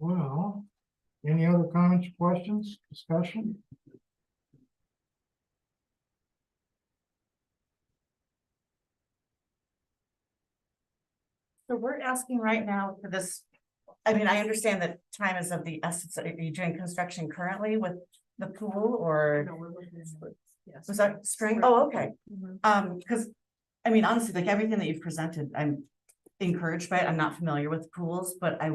Well, any other comments, questions, discussion? So we're asking right now for this, I mean, I understand that time is of the essence. Are you doing construction currently with the pool or No, we're looking at splits, Yes. Mm-hmm. was that string? Oh, okay. Um, because, I mean, honestly, like everything that you've presented, I'm encouraged by it. I'm not familiar with pools, but I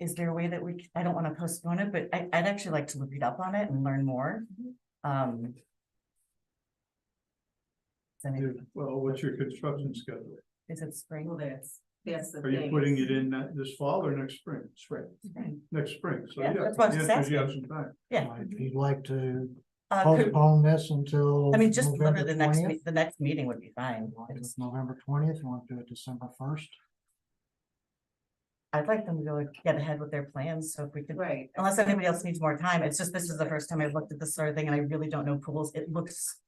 is there a way that we, c- I don't want to postpone it, but I, I'd actually like to look it up on it and learn more. Mm-hmm. Um. Is any- Well, what's your construction schedule? is it spring? Well, that's, that's the Are you thing putting is- it in that this fall or next spring? Spring. Spring. Next spring, so yeah. Yeah, that's what I was the just answer is you have some time. Yeah. If you'd like to Uh, could- postpone this until. I mean, just November literally the next, me- 20th, the next meeting would be fine. you want to do it It's- November twentieth, you want to do it December first? I'd like them to go get ahead with their plans, so if we could, Right. Oh, unless anybody else needs more time, it's just, this is the first time I've looked at this sort of thing and I really don't know pools, it looks.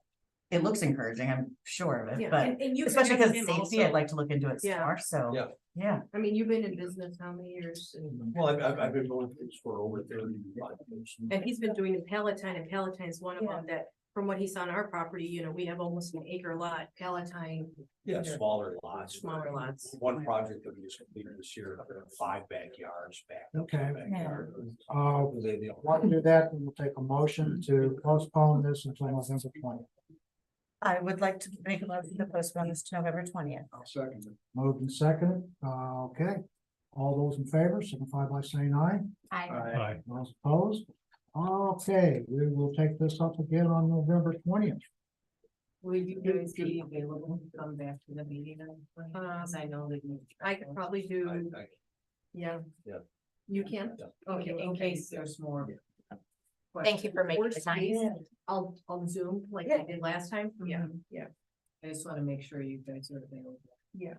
It looks encouraging, I'm sure of it, Yeah, but and- and you can especially ask because him safety, also. I'd like to look into it some Yeah. more, so. Yeah. Yeah, I mean, you've been in business how many years? And- Well, I've, I've, I've been going through this for over thirty years. And he's been doing in Palatine, and Palatine's one of Yeah. them that, from what he saw on our property, you know, we have almost an acre lot, Palatine. Yeah, smaller lots. Smaller lots. One project that we just completed this year, uh, five backyards back. Okay. backyard. Uh, They- they all- Want to do that, and we'll take a motion to postpone this until November twentieth. I would like to make a motion to postpone this to November twentieth. I'll second it. Moved and seconded, uh, okay. All those in favor signify by saying aye. Aye. Those opposed? Okay, we will take this up again on November twentieth. Will you guys be available to come back to the meeting? Cause I know that you. I could probably Um, I- do, I- yeah. Yeah. You can? Yeah. Okay, in case there's more. Thank you for making the Worst time. case, I'll, I'll zoom like I did last time. Mm-hmm. yeah. I just wanna make sure you guys are available. Yeah.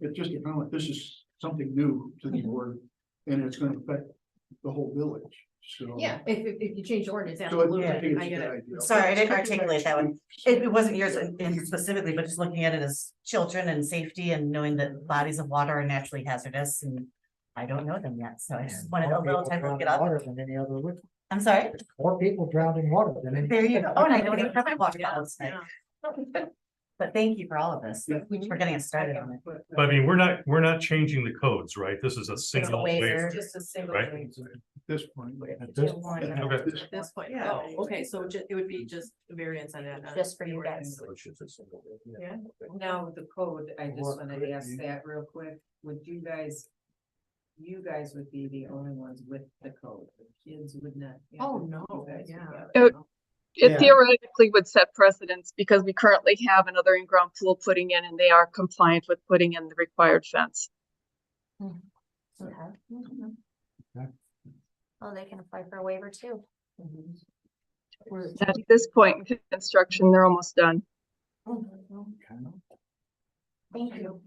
It's just, you know, this is something new to the board and it's gonna affect the whole village, so. Yeah, if, if, if you change ordinance, So I absolutely, I think I it's a get good it. idea. Sorry, I didn't articulate that one. It, it wasn't yours in- in specifically, but just looking at it as children and safety and knowing that bodies of water are naturally hazardous and. I don't know them yet, so I just wanted a More little people time drown to look it in up. Water than any other, liquid. I'm sorry? more people drowned in water than any. There you go. Oh, and I don't even have my water Yeah, bottles tonight. yeah. But thank you for all of this. Yeah. We're getting us started on it. But I mean, we're not, we're not changing the codes, right? This is a single waiver. Just a single. Right. thing. At this point. At this Okay. at this At this point, Yeah. oh, okay, so ju- it would be just a variance on that. not Just for the you guys. ordinance. So it's just a single- Yeah. Okay. Now, the code, I just Or wanted could to ask be. that real quick, would you guys? You guys would be the only ones with the code, the kids would not. have Oh, it. no, You guys would yeah. have it. Oh, Yeah. It theoretically would set precedents because we currently have another in-ground pool putting in and they are compliant with putting in the required fence. Oh, they can apply for a waiver too. At this point in construction, they're almost done. Thank you.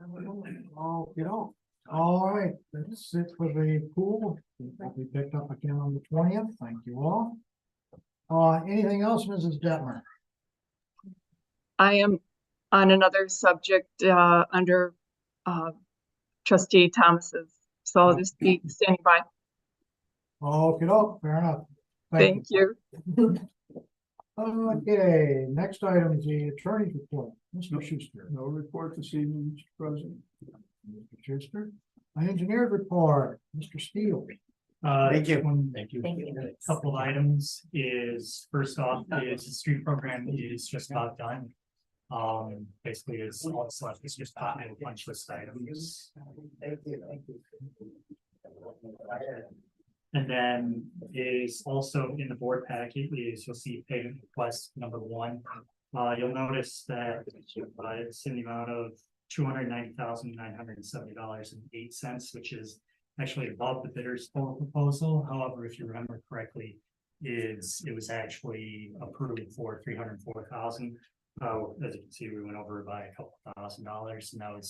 Oh, you know, all right, that's it for the pool. We'll be picked up again on the twentieth. Thank you all. Uh, anything else, Mrs. Detmer? I am on another subject, uh, under, uh, trustee Thomas's. So I'll just be standing by. Okay, oh, fair enough. Thank you. Okay, next item is the attorney's report. Mr. Schuster. No report this evening, Mr. President. Mr. Schuster. My engineer's report, Mr. Steele. Uh, Thank you. one- Thank you. Thank you. Couple of items is, first off, is the street program is just about done. Um, basically is all that's left is just a punch list items. And then is also in the board packet is you'll see payment request number one. Uh, you'll notice that uh, it's in the amount of two hundred ninety thousand nine hundred and seventy dollars and eight cents, which is actually above the bidder's total proposal. However, if you remember correctly, is it was actually approved Oh, for three hundred and four thousand. Uh, as you can see, we went over by a couple thousand dollars and that was